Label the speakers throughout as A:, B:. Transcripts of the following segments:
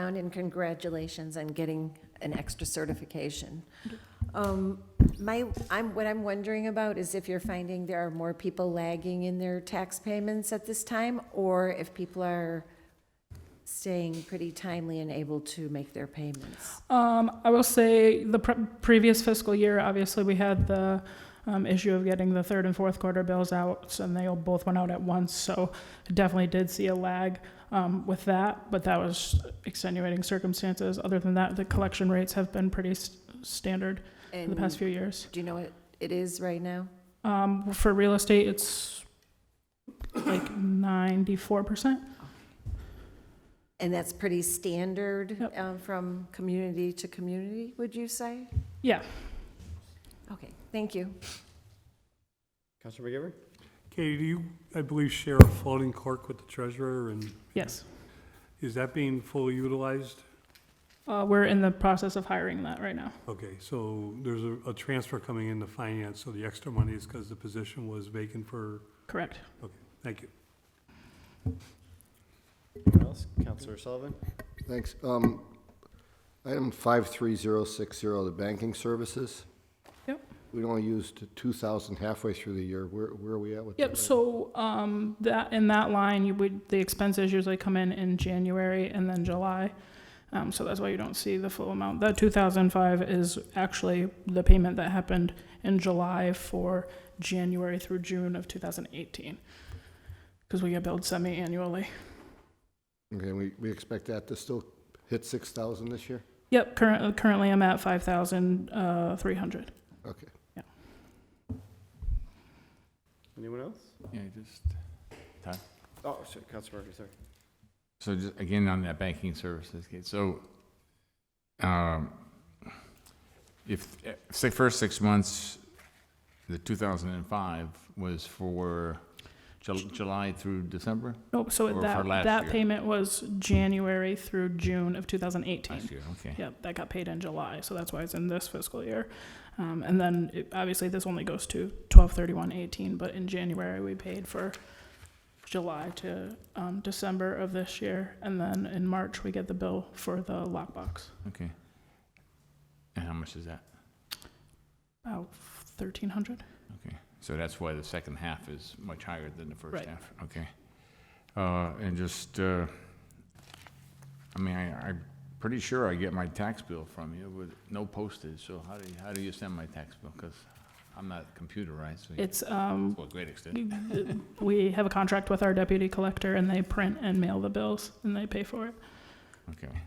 A: John, and congratulations on getting an extra certification. Um, My, I'm, what I'm wondering about is if you're finding there are more people lagging in their tax payments at this time, or if people are staying pretty timely and able to make their payments.
B: Um, I will say the pre- previous fiscal year, obviously, we had the um, issue of getting the third and fourth quarter bills out, and they all both went out at once. So definitely did see a lag um, with that, but that was extenuating circumstances. Other than that, the collection rates have been pretty s standard for the past
A: And
B: few years.
A: do you know what it is right now?
B: Um, for real estate, it's like 94%.
A: And that's pretty standard
B: Yep.
A: um, from community to community, would you say?
B: Yeah.
A: Okay, thank you.
C: Counselor McGivern?
D: Katie, do you, I believe, share a floating clerk with the treasurer, and
B: Yes.
D: is that being fully utilized?
B: Uh, we're in the process of hiring that right now.
D: Okay, so there's a, a transfer coming into finance, so the extra money is because the position was vacant for,
B: Correct.
D: thank you.
C: Anyone else? Counselor Sullivan?
E: Thanks. Um, Item 53060, the banking services.
B: Yep.
E: We only used 2,000 halfway through the year. Where where are we at with that?
B: Yep, so, um, that, in that line, you would, the expenses usually come in in January and then July. Um, so that's why you don't see the full amount. That two thousand five is actually the payment that happened in July for January through June of two thousand eighteen. Cause we get billed semi-annually.
E: Okay, we we expect that to still hit 6,000 this year?
B: Yep, current, currently I'm at five thousand, uh, three hundred.
E: Okay.
C: Anyone else?
F: Yeah, just,
C: Oh, sorry, Counselor Murphy, sorry.
F: so just, again, on that banking services, okay, so, um, if, eh, say, first six months, the two thousand and five was for Ju- July through December?
B: Nope, so
F: Or for
B: that,
F: last
B: that
F: year.
B: payment was January through June of two thousand eighteen.
F: Last year, okay.
B: Yep, that got paid in July, so that's why it's in this fiscal year. Um, and then, it- obviously, this only goes to twelve thirty-one eighteen, but in January, we paid for July to, um, December of this year, and then in March, we get the bill for the lockbox,
F: And how much is that?
B: about thirteen hundred.
F: So that's why the second half is much higher than the first
B: Right.
F: half, okay? Uh, and just, uh, I mean, I, I'm pretty sure I get my tax bill from you with no postage, so how do you, how do you send my tax bill? Because I'm not computerized, so you-
B: It's, um,
F: to a great extent.
B: we have a contract with our deputy collector, and they print and mail the bills, and they pay for it.
F: Okay.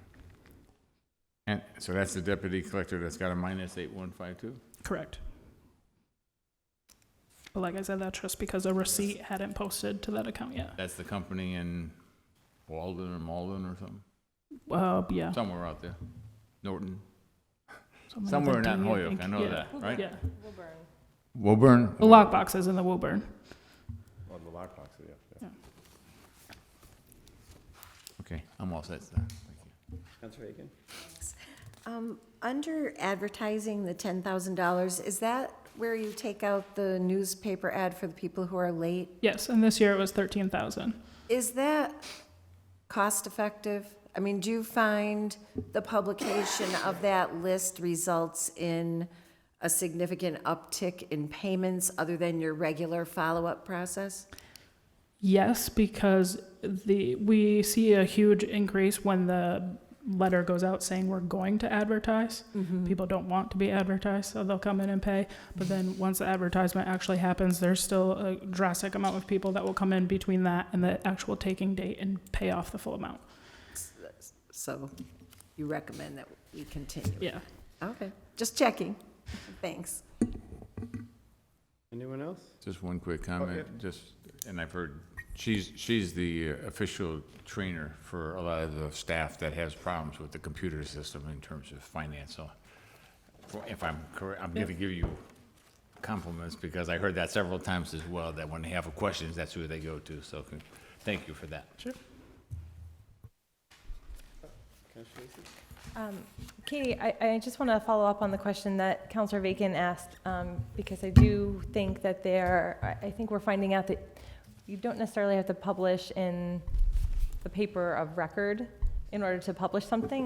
F: And, so that's the deputy collector that's got a minus eight one five two?
B: Correct. But like I said, that's just because a receipt hadn't posted to that account yet.
F: That's the company in Walden or Malden or something,
B: Uh, yeah.
F: somewhere out there, Norton,
B: Something
F: somewhere
B: like
F: not in
B: that,
F: Holyoke, I
B: think.
F: know
B: Yeah.
F: that, right?
B: Yeah,
F: Woburn?
B: the lockbox is in the Woburn.
C: On the lockbox, yeah, yeah.
F: Okay, I'm all set, sir. Thank you.
C: Counselor Aiken?
A: Um, Under advertising, the $10,000, is that where you take out the newspaper ad for the people who are late?
B: Yes, and this year it was thirteen thousand.
A: Is that cost-effective? I mean, do you find the publication of that list results in a significant uptick in payments other than your regular follow-up process?
B: Yes, because the we see a huge increase when the letter goes out saying we're going to advertise. People don't want to be advertised, so they'll come in and pay. But then once the advertisement actually happens, there's still a drastic amount of people that will come in between that and the actual taking date and pay off the full amount.
A: So you recommend that we continue?
B: Yeah.
A: Okay, just checking. Thanks.
C: Anyone else?
F: Just one quick comment, just, and I've heard, she's, she's the uh, official trainer for a lot of the staff that has problems with the computer system in terms of finance, so if I'm correct, I'm gonna give you compliments, because I heard that several times as well, that when they have questions, that's who they go to, so con- thank you for that.
C: Counselor Lacey?
G: Um, Katie, I, I just want to follow up on the question that Counselor Bacon asked, um, because I do think that there, I, I think we're finding out that you don't necessarily have to publish in the paper of record in order to publish something.